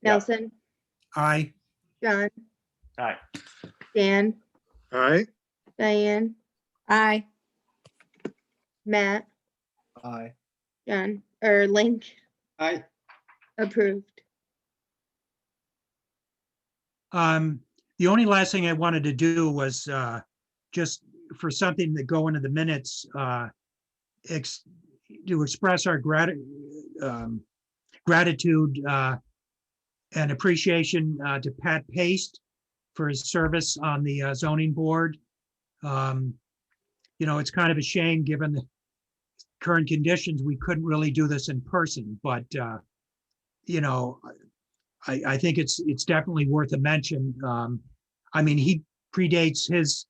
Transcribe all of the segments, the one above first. Yeah. Nelson, Aye. John, Aye. Dan, Aye. Diane, Aye. Matt, Aye. John, or Link, Aye. approved. Um, the only last thing I wanted to do was, uh, just for something to go into the minutes, uh, ex, to express our grati- um, gratitude, uh, and appreciation, uh, to Pat Paste for his service on the uh, zoning board. Um, you know, it's kind of a shame, given the current conditions, we couldn't really do this in person, but, uh, you know, I, I think it's, it's definitely worth a mention. Um, I mean, he predates his,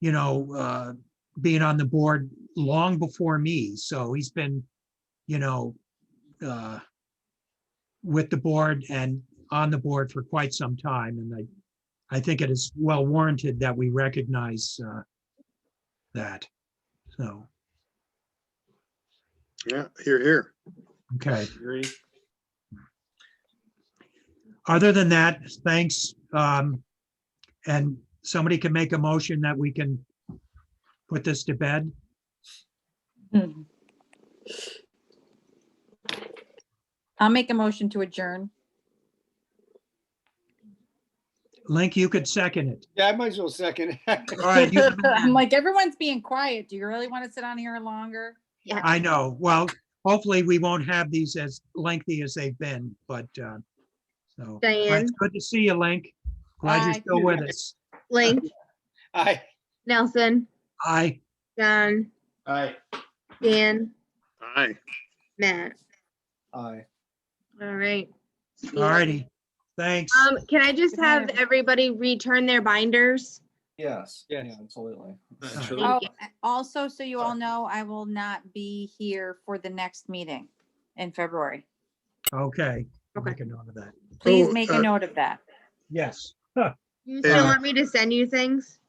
you know, uh, being on the board long before me. So he's been, you know, uh, with the board and on the board for quite some time. And I, I think it is well warranted that we recognize, uh, that. So, Yeah, here, here. okay. Agree. other than that, thanks. Um, and somebody can make a motion that we can put this to bed. Hmm. I'll make a motion to adjourn. Link, you could second it. Yeah, I might as well second. All right, you- I'm like, everyone's being quiet. Do you really want to sit on here longer? I know. Well, hopefully we won't have these as lengthy as they've been, but, uh, so. All right, Diane? it's Good to see you, Link. Glad you're Bye. still with us. Link, Aye. Nelson, Aye. John, Aye. Dan, Aye. Matt. Aye. All right. All righty. Thanks. Um, can I just Good night, have everyone. everybody return their binders? Yes. Yes. Yeah, absolutely. Absolutely. Oh, Thank you. also, so you all know, I will not be here for the next meeting in February. Okay. I'll Okay. Make a note of that. Please Oh, make uh, a note of that. Yes. You still Yeah. want me to send you things?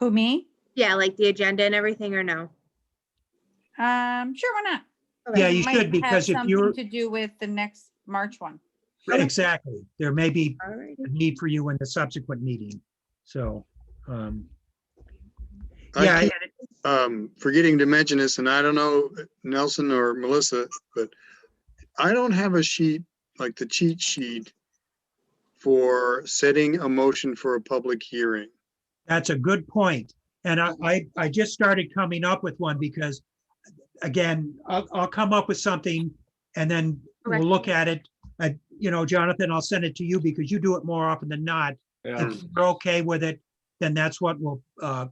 Who, me? Yeah, like the agenda and everything or no? Um, sure, why not? Okay. Yeah, you Might should, have because if something you're, To do with the next March one. exactly. There may be All righty. a need for you in the subsequent meeting. So, um, I yeah, keep, um, forgetting to mention this, and I don't know Nelson or Melissa, but I don't have a sheet, like the cheat sheet for setting a motion for a public hearing. that's a good point. And I, I, I just started coming up with one because, again, I'll, I'll come up with something and then we'll Okay. look at it. Uh, you know, Jonathan, I'll send it to you because you do it more often than not. Yeah. If you're okay with it, then that's what we'll, uh,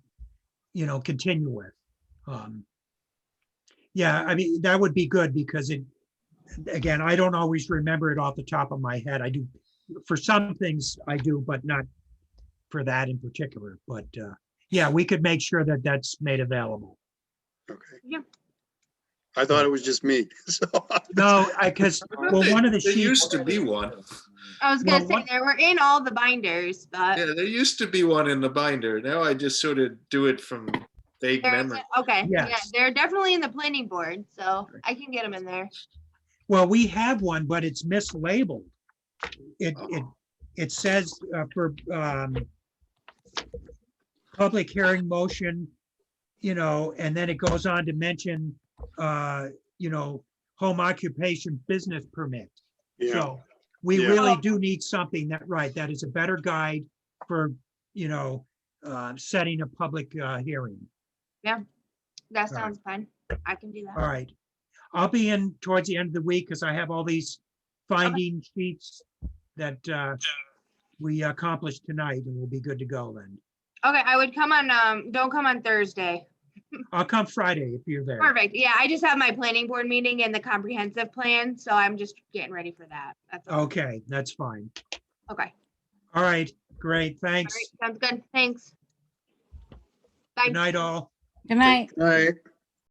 you know, continue with. Um, Yeah, I mean, that would be good because it, again, I don't always remember it off the top of my head. I do, for some things I do, but not for that in particular. But, uh, yeah, we could make sure that that's made available. Okay. Yeah. I thought it was just me, so. No, I, because, well, one of the There sheets, used to be one. I was Well, gonna say, what- there were in all the binders, Yeah, but there used to be one in the binder. Now I just sort of do it from vague there memory. isn't- okay, yeah, Yes. they're definitely in the planning board, so I can get them in there. well, we have one, but it's mislabeled. It, it, Oh. it says uh, for, um, public hearing motion, you know, and then it goes on to mention, uh, you know, home occupation business permit. Yeah, So we Yeah. really do need something that, right, that is a better guide for, you know, uh, setting a public uh, hearing. That All right. sounds fun. I can do All that. right. I'll be in towards the end of the week because I have all these finding sheets that uh, we accomplished tonight and we'll be good to go then. Okay, I would come on, um, don't come on Thursday. I'll come Friday if you're there. Perfect. Yeah, I just have my planning board meeting and the comprehensive plan, so I'm just getting ready for that. That's all. Okay, that's fine. Oh. Okay. All right, great. Thanks. All right, sounds good. Thanks. Bye. Good night, all. Good night. All right.